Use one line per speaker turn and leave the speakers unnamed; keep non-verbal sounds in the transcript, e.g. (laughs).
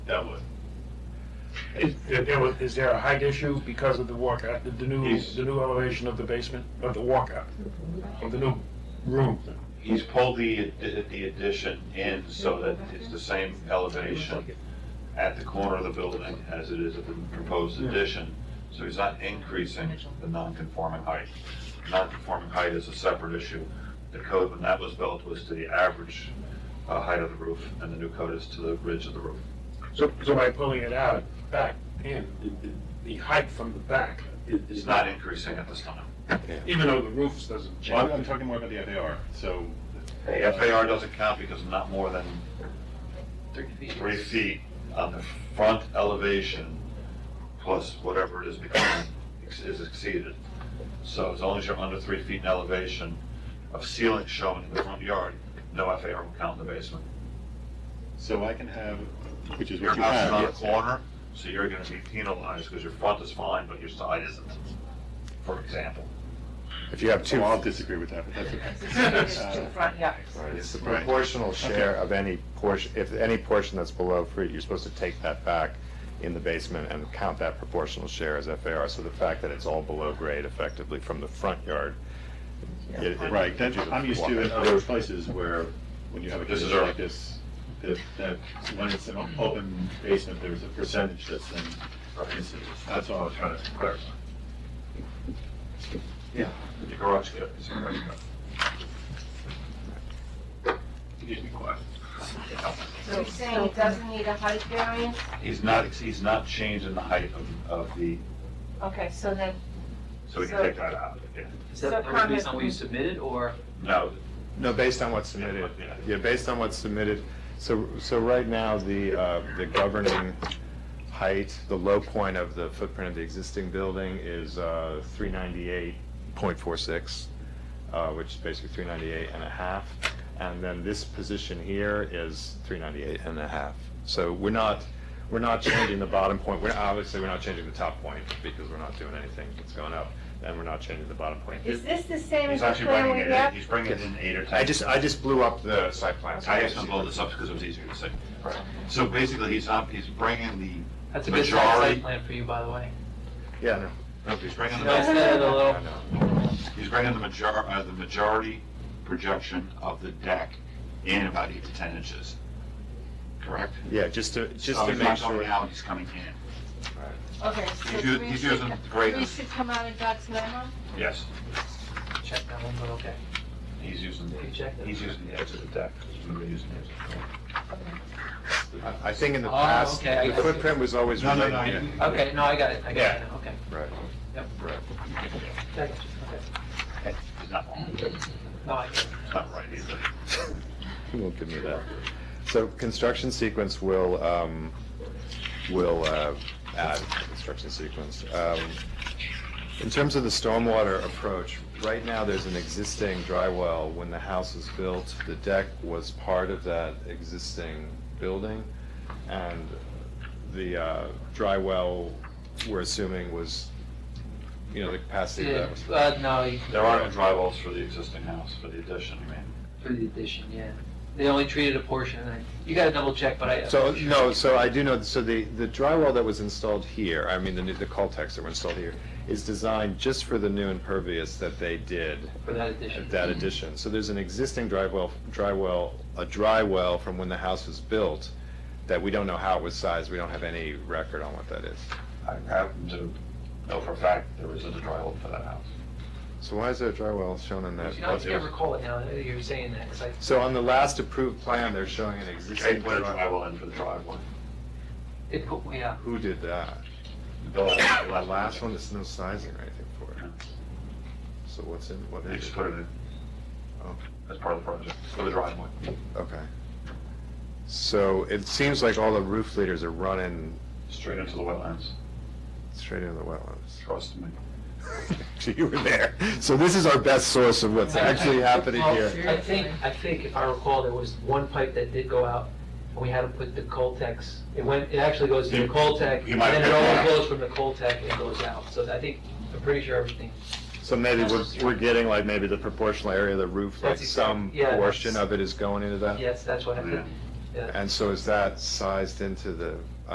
that would.
Is there- there was- is there a height issue because of the walkout, the- the new,
Yes.
the new elevation of the basement, of the walkout, of the new room?
He's pulled the, addi- the addition in so that it's the same elevation at the corner of the building as it is at the proposed addition. So he's not increasing the non-conforming height. Non-conforming height is a separate issue. The code when that was built was to the average uh, height of the roof, and the new code is to the ridge of the roof.
So, so by pulling it out back in, the height from the back,
It's not increasing at this time.
even though the roofs doesn't
Well, I'm- I'm
change.
talking more about the FAR, so.
The FAR doesn't count because not more than three feet on the front elevation plus whatever it is becoming ex- is exceeded. So as long as you're under three feet in elevation of ceiling shown in the front yard, no FAR will count in the basement.
So I can have, which is
Your
what you
house is
have.
on a
yes.
corner, so you're gonna be penalized because your front is fine, but your side isn't, for example.
If you have two,
Well, I'll disagree with that, but that's
It's
okay.
two
Uh,
front yards.
it's the
Right.
proportional share of any portion, if any portion that's below free, you're supposed to take that back in the basement and count that proportional share as FAR. So the fact that it's all below grade effectively from the front yard. it- it-
Right, that's, I'm used to in other places where, when you have a
This is
condition like
early.
this, that, that when it's an open basement, there's a percentage that's in, that's all I was trying to clarify.
Your garage could, it's a garage could.
You just be quiet.
So you're saying it doesn't need a height variance?
He's not, he's not changing the height of, of the,
Okay, so then,
so we can take that out, yeah.
Is
So
that that was based on what you
comment-
submitted, or?
No,
No, based on what's submitted,
Yeah.
yeah, based on what's submitted, so, so right now, the, uh, the governing height, the low point of the footprint of the existing building is, uh, three ninety-eight point four six, uh, which is basically three ninety-eight and a half, and then this position here is three ninety-eight and a half. So we're not, we're not changing the bottom point, we're, obviously, we're not changing the top point, because we're not doing anything, it's going up, and we're not changing the bottom point.
is this the same as
he's
the
actually
plan
bringing
we
it in,
have?
he's bringing in eight or ten.
I just, I just blew up the site plan. so
I
you
have
see-
some blow this up because it was easier to say. So basically, he's not, he's bringing the,
That's a good
Majority.
site plan for you, by the way.
Yeah, no.
he's bringing
You
the.
guys did it a little-
He's bringing the major, uh, the majority projection of the deck in about eight to ten inches, correct?
Yeah, just to, just
So
to
he's
make
Oh, not going
sure.
out, he's coming in,
Okay,
He's
so
u-
three
he's
should,
using
co-
great-
three should come out of Doc's memo?
yes,
Check that one, but okay.
he's using,
You checked it.
he's using the edge of the deck, he's gonna be using the edge of the deck.
I- I think in the
Oh,
past,
okay, I
the
got you.
footprint was always.
No, no,
related-
no,
yeah,
you-
Okay, no, I got it, I got it, now, okay.
Right.
Yep.
Right.
Check it, okay.
he's not,
No, I get it.
he's not right either.
He (laughs) won't give me that. So construction sequence will, um, will, uh, add construction sequence. Um, In terms of the stormwater approach, right now, there's an existing dry well. When the house was built, the deck was part of that existing building. And the, uh, dry well, we're assuming was, you know, the capacity of that was.
Yeah, uh, no, you-
There are no dry wells for the existing house, for the addition, I mean.
for the addition, yeah. They only treated a portion, and you gotta double check, but I.
So, no, so I do know, so the, the drywall that was installed here, I mean, the, new- the Coltex that were installed here, is designed just for the new impervious that they did
For that addition.
at that addition. So there's an existing drywall, drywall, a dry well from when the house was built, that we don't know how it was sized, we don't have any record on what that is.
I happen to know for a fact there isn't a drywall for that house.
So why is there a drywall shown in that?
You know, I can't recall it now, that you're saying that, 'cause I.
So on the last approved plan, they're showing an
They
existing
put a
drywall.
drywall in for the driveway.
It put, yeah,
Who
(coughs)
did that?
The
That last one, there's no sizing or anything for
No.
it. So what's in, what
They
is
just
it?
put it in.
Oh.
As part of the project, for the driveway.
Okay. So it seems like all the roof leaders are running
Straight into the wetlands,
straight into the wetlands. (laughs)
trust me.
So you were there. So this is our best source of what's
(laughs)
actually happening
Well,
here.
I think, I think if I recall, there was one pipe that did go out, and we had to put the Coltex, it went, it actually goes to the
You-
Coltex,
you
and
might
then it
have picked that up.
overflows from the Coltex and goes out, so I think, I'm pretty sure everything,
So maybe we're, we're getting like maybe the proportional area of the roof, like
That's exact-
some
yeah,
portion
that's-
of it is going into that?
yes, that's what I think.
Yeah.
Yeah.
And so is that sized into the